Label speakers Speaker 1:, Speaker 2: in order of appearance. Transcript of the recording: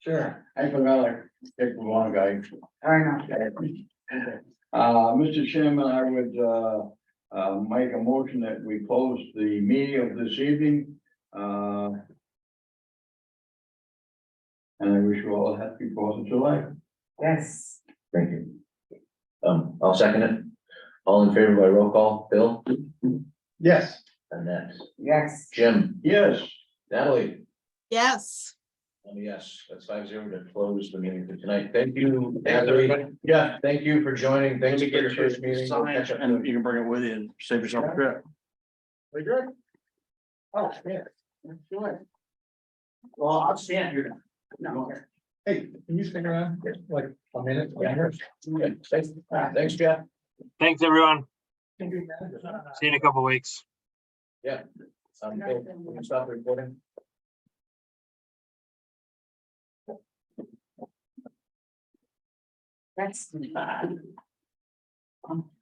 Speaker 1: Sure.
Speaker 2: I forgot I picked the wrong guy.
Speaker 1: I know.
Speaker 2: Uh, Mr. Chairman, I would, uh, uh, make a motion that we close the meeting of this evening, uh. And I wish you all a happy Fourth of July.
Speaker 1: Yes.
Speaker 3: Thank you. Um, I'll second it. All in favor by roll call, Bill,
Speaker 2: Yes.
Speaker 3: and that's
Speaker 1: Yes.
Speaker 3: Jim,
Speaker 2: Yes,
Speaker 3: Natalie,
Speaker 4: Yes.
Speaker 3: and yes, that's five zero to close the meeting for tonight. Thank you, Natalie. Yeah, thank you for joining. Thanks for your first meeting. We'll catch up.
Speaker 5: And you can bring it with you and save yourself a trip.
Speaker 1: We good? Oh, yeah. Sure.
Speaker 5: Well, I'll stand here.
Speaker 1: No.
Speaker 6: Hey, can you stick around like a minute? longer?
Speaker 3: Okay, Thanks, thanks, Jeff.
Speaker 7: Thanks, everyone. See you in a couple weeks.
Speaker 3: Um, Bill, we can Stop recording.
Speaker 1: That's. fine. Um,